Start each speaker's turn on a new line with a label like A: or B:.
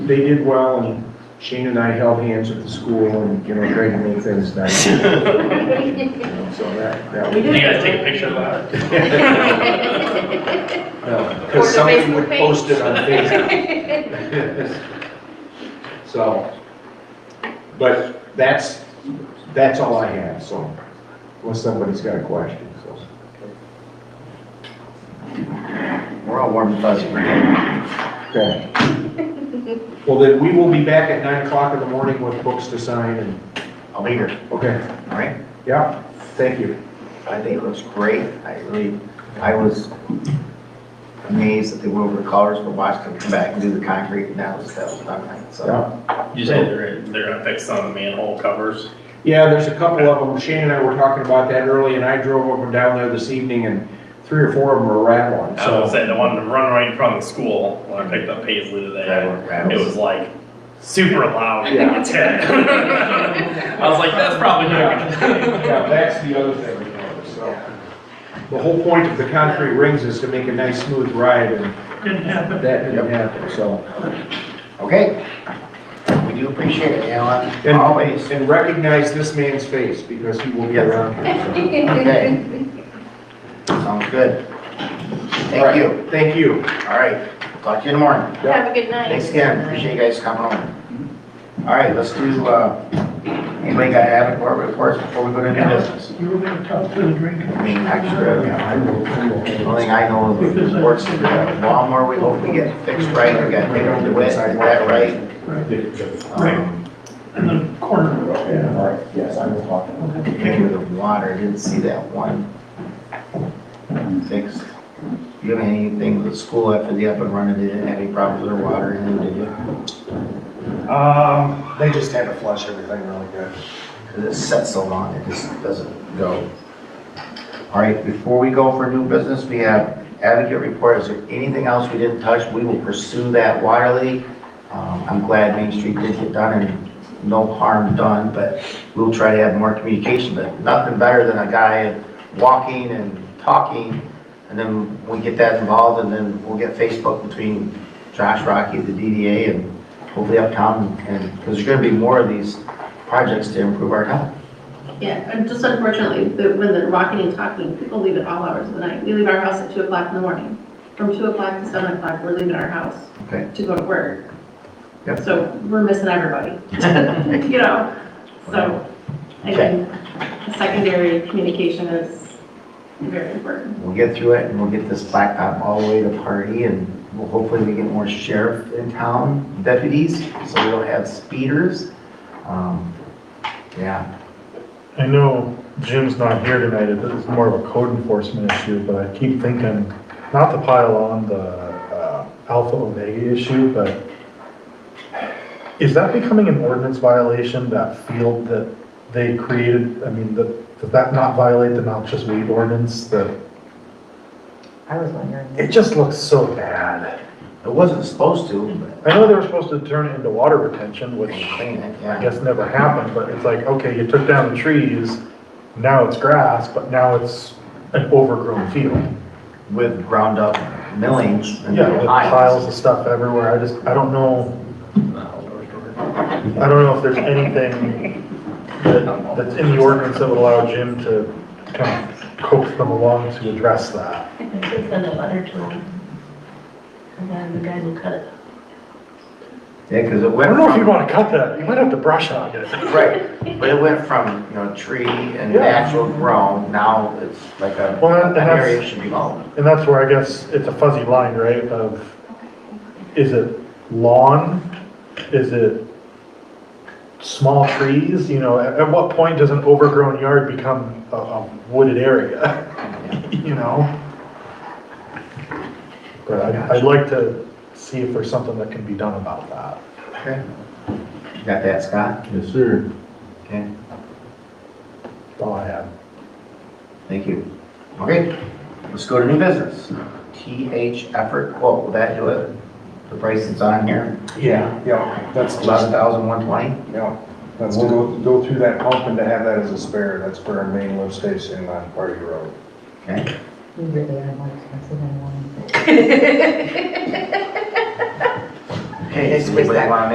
A: they did well, and Shane and I held hands at the school and, you know, tried to make things nice. you know, So that, that
B: You
A: was,
B: guys take a picture of that?
C: Or the
A: because Uh, somebody
C: Facebook
A: would
C: page.
A: post it on Facebook. So, but that's, that's all I have, so, unless somebody's got a question, so.
D: We're all warm and fuzzy.
A: Okay. Well, then, we will be back at nine o'clock in the morning with books to sign and,
D: I'll be here,
A: okay,
D: all right?
A: yeah, thank you.
D: I think it looks great. I really, I was amazed that the Wilbur Colors were watched them come back and do the concrete and that was, that was not right, so.
A: Yeah,
B: You said they're, they're fixed on the manhole covers.
A: yeah, there's a couple of them, Shane and I were talking about that early, and I drove up and down there this evening, and three or four of them were rattling,
B: I was
D: Oh,
A: so.
B: saying the one to run right in front of the school when I picked up Paisley today. It was like super loud.
A: Yeah.
B: I was like, that's probably not gonna.
A: Yeah, that's the other thing, you know, so. The whole point of the concrete rings is to make a nice smooth ride, and
B: Didn't happen.
A: that didn't happen, so.
D: Okay. We do appreciate it, Alan,
A: And
D: always.
A: And recognize this man's face, because he will be
D: Yes.
A: around here, so.
D: Okay. Sounds good.
A: All right,
D: Thank you.
A: Thank you.
D: All right, talk to you in the morning.
C: Have a good night.
D: Thanks again, appreciate you guys coming on. All right, let's do, uh, anybody got any board reports before we go to new business?
E: You were gonna talk to the drink,
D: I mean, extra, you know,
A: I will- I will-
D: The only thing I know is the reports, the lawnmower, we hope we get fixed right, we got rid of the wet, we got that right. Um,
E: in the corner.
A: Yeah, all right.
D: Yes, I was talking. Picture of the water, I didn't see that one. Fixed. You have anything with the school after the up and running, they didn't have any problems with their water, and did you?
A: Um, they just had to flush everything really good.
D: Because it sets so long, it just doesn't go. All right, before we go for new business, we have advocate report. Is there anything else we didn't touch? We will pursue that wirely. Um, I'm glad Main Street did get done and no harm done, but we'll try to have more communication, but nothing better than a guy walking and talking. And then we get that involved and then we'll get Facebook between Josh Rocky, the DDA, and hopefully uptown. And, because there's gonna be more of these projects to improve our town.
F: Yeah, and just unfortunately, the- when they're walking and talking, people leave at all hours of the night. We leave our house at two o'clock in the morning. From two o'clock to seven o'clock, we're leaving our house
D: Okay.
F: to go to work.
D: Yep.
F: So we're missing everybody, you know? So I
D: Okay.
F: think secondary communication is very important.
D: We'll get through it and we'll get this blacktop all the way to party and we'll hopefully we get more sheriff in town, deputies, so we don't have speeders. Um, Yeah,
G: I know Jim's not here tonight, it is more of a code enforcement issue, but I keep thinking, not to pile on the uh, Alpha Omega issue, but is that becoming an ordinance violation, that field that they created? I mean, that- does that not violate the noxious weed ordinance that,
H: I was wondering.
G: it just looks so bad.
D: it wasn't supposed to, but
G: I know they were supposed to turn it into water retention, which
D: they
G: I
D: clean it, yeah.
G: guess never happened, but it's like, okay, you took down the trees, now it's grass, but now it's an overgrown field.
D: With ground up millings and
G: Yeah, with piles
D: piles.
G: of stuff everywhere, I just, I don't know, I don't know if there's anything that, that's in the ordinance that would allow Jim to kind of coax them along to address that.
H: I think they send a letter to him. And then the guys will cut it.
D: Yeah, because it
G: I
D: went
G: don't know if you'd
D: from,
G: wanna cut that, you might have to brush hog it.
D: right, but it went from, you know, tree and
G: Yeah.
D: natural grown, now it's like a
G: Well, that- that's-
D: area should be mowed.
G: And that's where I guess it's a fuzzy line, right, of, is it lawn? Is it small trees? You know, at, at what point does an overgrown yard become a, a wooded area? You know? But I, I'd like to see if there's something that can be done about that.
D: Okay. You Got that, Scott?
A: Yes, sir.
D: Okay.
G: That's all I have.
D: Thank you. Okay, let's go to new business. TH effort quote, will that do it? The price that's on here,
A: Yeah, yeah, that's,
D: eleven thousand one twenty?
A: yeah, that's to go, go through that pump and to have that as a spare, that's for our main lift station on Party Road.
D: Okay,
H: We really are more expensive than one.
D: Okay,
H: Next
D: does anybody
H: week's back.
D: wanna